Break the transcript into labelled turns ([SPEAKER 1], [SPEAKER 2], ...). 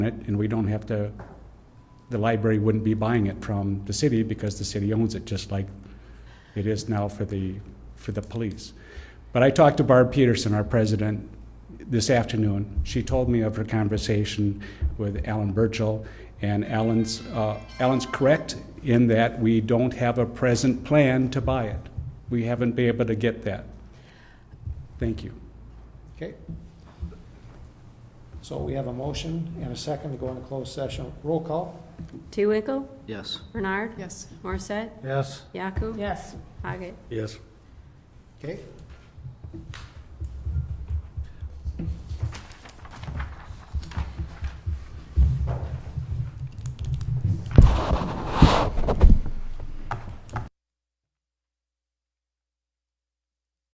[SPEAKER 1] it, and we don't have to, the library wouldn't be buying it from the city because the city owns it, just like it is now for the, for the police. But I talked to Barb Peterson, our president, this afternoon. She told me of her conversation with Alan Burchell, and Alan's, uh, Alan's correct in that we don't have a present plan to buy it. We haven't been able to get that. Thank you.
[SPEAKER 2] Okay. So we have a motion and a second to go into closed session. Roll call?
[SPEAKER 3] Tewinkle?
[SPEAKER 4] Yes.
[SPEAKER 3] Bernard?
[SPEAKER 5] Yes.
[SPEAKER 3] Morissette?
[SPEAKER 2] Yes.
[SPEAKER 3] Yaku?
[SPEAKER 5] Yes.
[SPEAKER 3] Haggett?
[SPEAKER 4] Yes.
[SPEAKER 2] Okay.